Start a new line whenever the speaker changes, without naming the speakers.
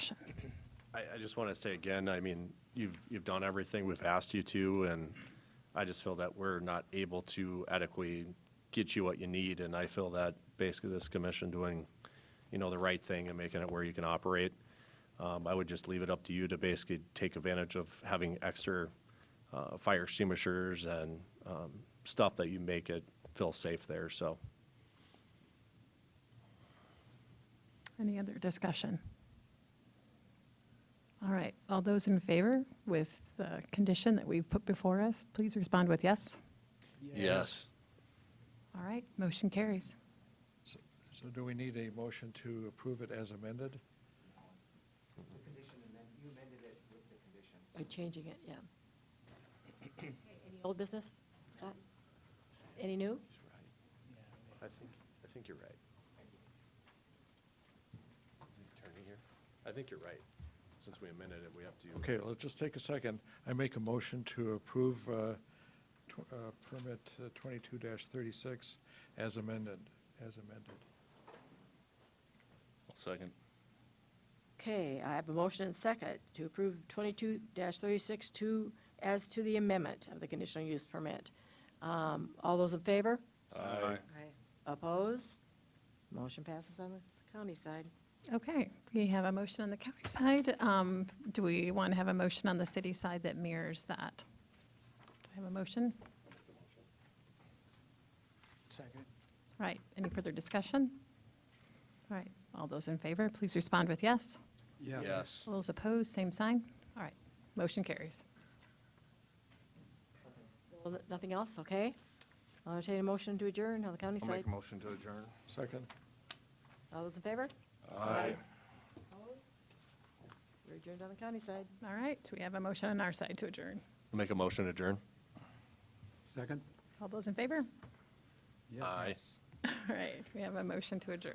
I, I just want to say again, I mean, you've, you've done everything we've asked you to, and I just feel that we're not able to adequately get you what you need, and I feel that basically this commission doing, you know, the right thing and making it where you can operate. Um, I would just leave it up to you to basically take advantage of having extra, uh, fire extinguishers and, um, stuff that you make it feel safe there, so.
Any other discussion? All right, all those in favor with the condition that we've put before us, please respond with yes.
Yes.
All right, motion carries.
So so do we need a motion to approve it as amended?
By changing it, yeah. Any old business, Scott? Any new?
I think, I think you're right. Is the attorney here? I think you're right. Since we amended it, we have to.
Okay, let's just take a second. I make a motion to approve uh, tw- uh, permit uh, 22-36 as amended, as amended.
Second.
Okay, I have a motion and second to approve 22-362 as to the amendment of the conditional use permit. Um, All those in favor?
Aye.
Oppose? Motion passes on the county side.
Okay, we have a motion on the county side. Um, Do we want to have a motion on the city side that mirrors that? Do I have a motion?
Second.
Right, any further discussion? All right, all those in favor, please respond with yes.
Yes.
All those opposed, same sign. All right, motion carries.
Well, Nothing else, okay? I'll entertain a motion to adjourn on the county side.
motion to adjourn.
Second?
All those in favor?
Aye.
We're adjourned on the county side.
All right, we have a motion on our side to adjourn.
Make a motion to adjourn?
Second?
All those in favor?
Aye.
All right, we have a motion to adjourn.